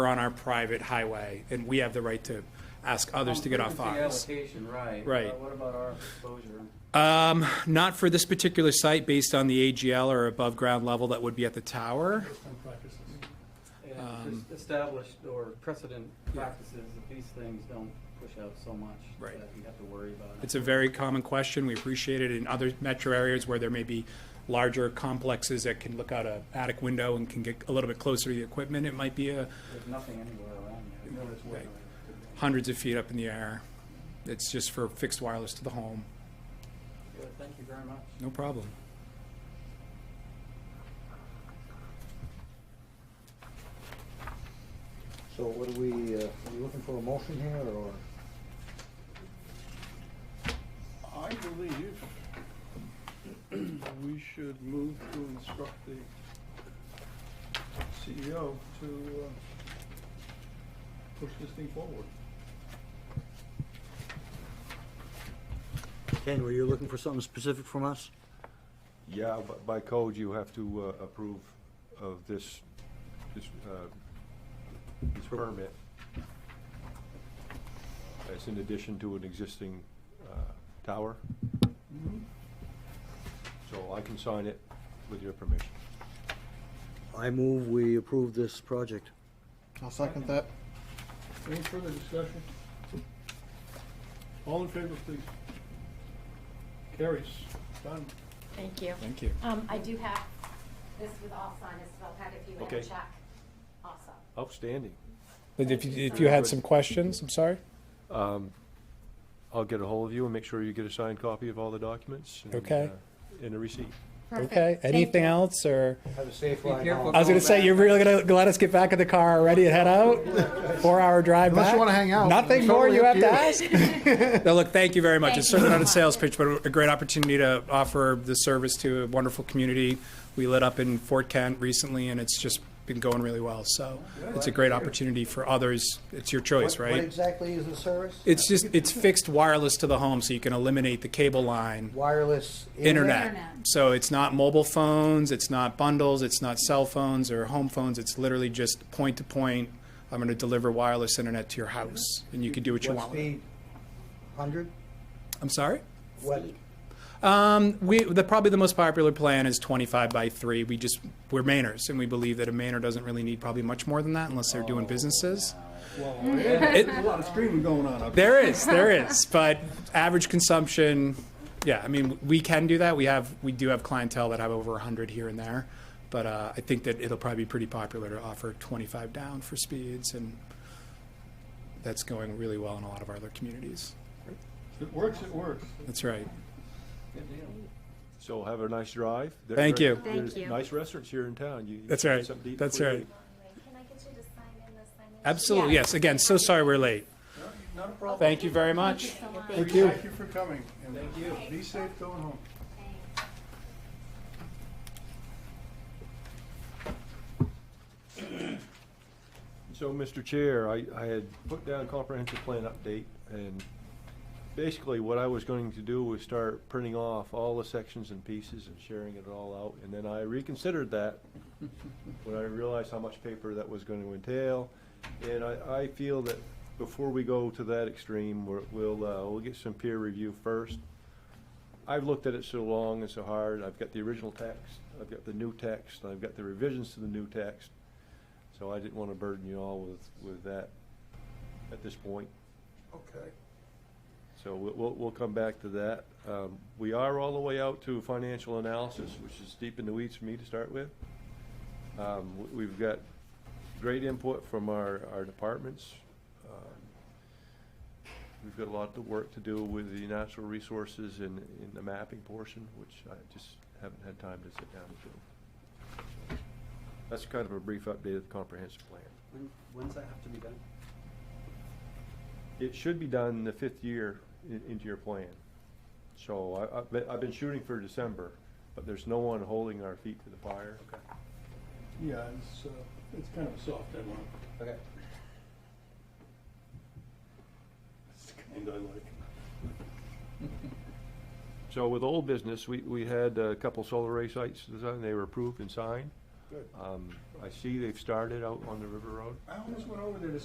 are on our private highway, and we have the right to ask others to get off ours. Frequency allocation, right. Right. But What about our exposure? Um, not for this particular site, based on the AGL or above ground level that would be at the tower. Um, And just established or precedent practices, that these things don't push out so much Right. that you have to worry about it. It's a very common question. We appreciate it in other metro areas where there may be larger complexes that can look out a attic window and can get a little bit closer to the equipment. It might be uh, a There's nothing anywhere around you. No, there's Right. one. hundreds of feet up in the air. It's just for fixed wireless to the home. Good, Thank you very much. No problem. So what are we, uh, are we looking for a motion here, or? I believe we should move to instruct the CEO to uh, push this thing forward. Ken, were you looking for something specific from us? Yeah, but by code, you have to uh, approve of this, this, uh, this permit. It's in addition to an existing uh, tower. Mm-hmm. So I can sign it with your permission. I move we approve this project. I'll second that. Any further discussion? All in favor, please. Carries. Done. Thank you. Thank you. Um, I do have this with all signed, so I'll have if you want Okay. to check also. Outstanding. But if you, if you had some questions, I'm sorry. I'll get a hold of you and make sure you get a signed copy of all the documents. and, Okay. uh, And a receipt. Okay. Anything else or? Have a safe ride home. I was gonna Oh, say you're really gonna let us get back in the car already and head out. Four hour drive Unless back. you wanna hang out. Nothing It's more totally you up have to to ask. no, look, thank you very much. Thank it's you certainly so not a sales pitch, much. but a great opportunity to offer the service to a wonderful community. We lit up in Fort Kent recently, and it's just been going really well. So it's a great opportunity for others. It's your choice, What- right? What exactly is the service? Uh, It's just it's fixed wireless to the home, so you can eliminate the cable line. Wireless Internet. Internet. So it's not mobile phones, it's not bundles, it's not cell phones or home phones. It's literally just point to point. I'm going to deliver wireless internet to your house, and you can do what you want. With it. speed? Hundred? I'm sorry. What, Um, we the probably the most popular plan is 25 by three. We just we're Mainers, and we believe that a Mainer doesn't really need probably much more than that unless they're doing businesses. Oh. There's a lot of streaming going on up there. There is, there is, but average consumption, yeah, I mean, we can do that. We have, we do have clientele that have over 100 here and there, but uh, I think that it'll probably be pretty popular to offer 25 down for speeds, and that's going really well in a lot of our other communities. If it works, it works. That's right. So have a nice drive. There- Thank you. there- Thank there's you. Nice restaurants here in town. You- you That's get right. something to eat That's before you right. leave. Can I get you to sign in the signing? Absolutely, Yeah. yes. Again, so sorry we're late. Not a problem. Thank you very much. Thank you. Thank you for coming. Thank you. Be safe going home. So, Mr. Chair, I, I had put down comprehensive plan update, and basically what I was going to do was start printing off all the sections and pieces and sharing it all out, and then I reconsidered that when I realized how much paper that was going to entail, and I, I feel that before we go to that extreme, we're- we'll, uh, we'll get some peer review first. I've looked at it so long and so hard, I've got the original text, I've got the new text, I've got the revisions to the new text, so I didn't want to burden you all with, with that at this point. Okay. So we'll, we'll, we'll come back to that. Um, we are all the way out to financial analysis, which is deep in the weeds for me to start with. Um, we- we've got great input from our, our departments. Um, We've got a lot of work to do with the natural resources and, in the mapping portion, which I just haven't had time to sit down and do. That's kind of a brief update of the comprehensive plan. When, when's that have to be done? It should be done the fifth year in- into your plan. So I, I've been, I've been shooting for December, but there's no one holding our feet to the fire. Yeah, it's, uh, it's kind of a soft deadline. Okay. It's the kind I like. So with old business, we, we had a couple solar array sites designed, they were approved and signed. Good. Um, I see they've started out on the River Road. I almost went over there to